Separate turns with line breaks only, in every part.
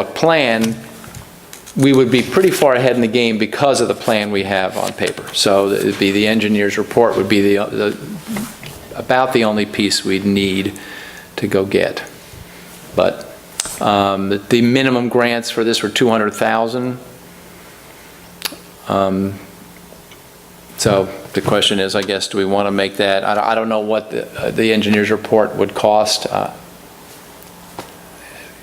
a plan, we would be pretty far ahead in the game because of the plan we have on paper. So it'd be, the engineer's report would be the- the, about the only piece we'd need to go get. But um, the minimum grants for this were 200,000. Um, So the question is, I guess, do we want to make that, I don't- I don't know what the uh, the engineer's report would cost. uh,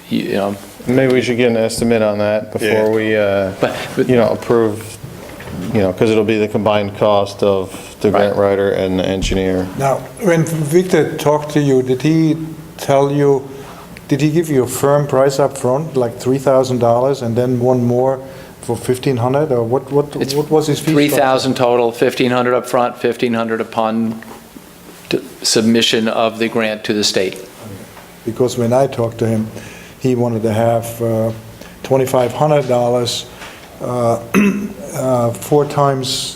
You you know,
Maybe we should get an estimate on that
Yeah.
before we, uh,
But- but-
you know, approve, you know, because it'll be the combined cost of the grant
Right.
writer and the engineer.
Now, when Victor talked to you, did he tell you, did he give you a firm price up front, like $3,000 and then one more for 1,500? Or what, what,
It's
what was his fee? structure?
3,000 total, 1,500 up front, 1,500 upon t- submission of the grant to the state.
Because when I talked to him, he wanted to have uh, $2,500, uh, uh, four times,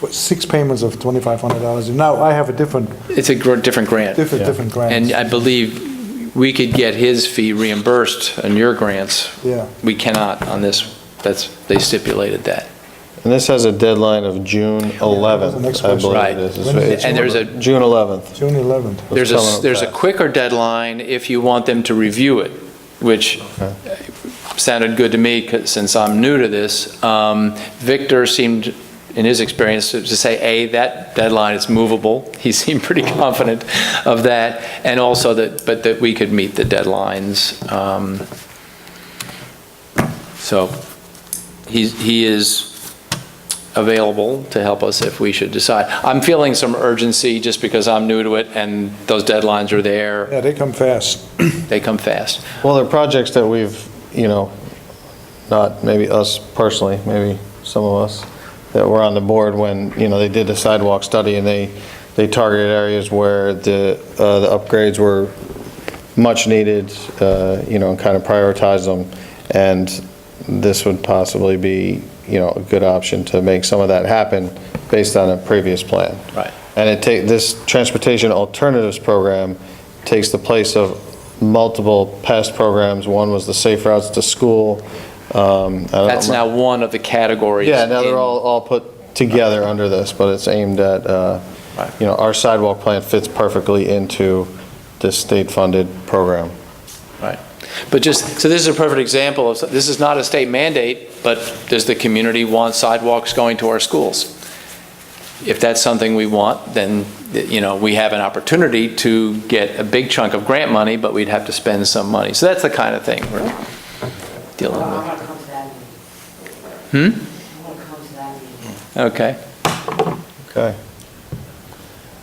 for six payments of $2,500. Now, I have a different,
It's a gr- different grant.
different, different grant.
And I believe we could get his fee reimbursed on your grants.
Yeah.
We cannot on this, that's, they stipulated that.
And this has a deadline of June
the next
11th, I
question.
believe
Right.
it is.
When is it?
And there's a-
June 11th.
June 11th.
was
There's
telling
a,
them
there's a
that.
quicker deadline if you want them to review it, which sounded good to me 'cause- since I'm new to this. Um, Victor seemed, in his experience, to to say, A, that deadline is movable. He seemed pretty confident of that. And also that, but that we could meet the deadlines. Um, So he's, he is available to help us if we should decide. I'm feeling some urgency just because I'm new to it and those deadlines are there.
Yeah, they come fast.
They come fast.
Well, there are projects that we've, you know, not maybe us personally, maybe some of us, that were on the board when, you know, they did the sidewalk study and they, they targeted areas where the, uh, the upgrades were much needed, uh, you know, and kind of prioritize them. And this would possibly be, you know, a good option to make some of that happen based on a previous plan.
Right.
And it take, this Transportation Alternatives Program takes the place of multiple past programs. One was the Safe Routes to School. um, I don't
That's
know.
now one of the categories.
Yeah, now they're
in-
all, all put together under this, but it's aimed at, uh,
Right.
you know, our sidewalk plan fits perfectly into this state-funded program.
Right. But just, so this is a perfect example of, this is not a state mandate, but does the community want sidewalks going to our schools? If that's something we want, then, you know, we have an opportunity to get a big chunk of grant money, but we'd have to spend some money. So that's the kind of thing we're dealing with.
Well, I'm gonna come to that meeting. I'm gonna come to that meeting.
Okay.
Okay.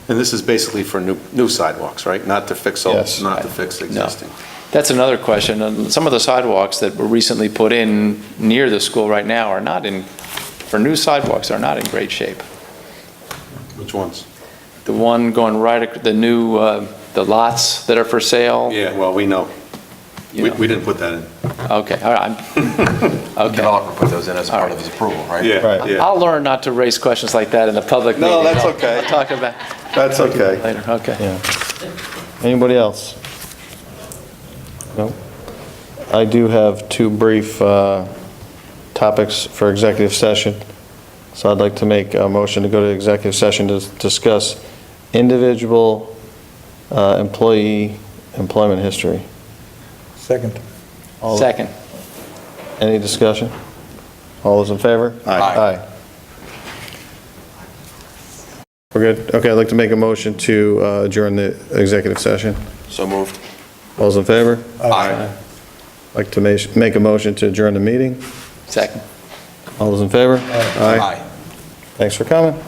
And this is basically for new, new sidewalks, right? Not to fix old,
Yes.
not to fix existing.
That's another question. And Some of the sidewalks that were recently put in near the school right now are not in, for new sidewalks, are not in great shape.
Which ones?
The one going right, ac- the new, uh, the lots that are for sale?
Yeah, well, we know.
you
We,
know.
we didn't put that in.
Okay, all right. I'm- Okay.
developer put those in as part of his approval, right?
Right.
I'll learn not to raise questions like that in the public meeting.
No, that's
I'll-
okay.
I'll talk about
That's okay.
it later, okay.
Yeah. Anybody else? No. I do have two brief uh, topics for executive session. So I'd like to make a motion to go to executive session to discuss individual uh, employee employment history.
Second.
All-
Second.
Any discussion? All those in favor?
Aye.
Aye.
Aye. We're good. Okay, I'd like to make a motion to uh, adjourn the executive session.
So moved.
All those in favor?
Aye.
Like to ma- make a motion to adjourn the meeting.
Second.
All those in favor?
Aye.
Thanks for coming.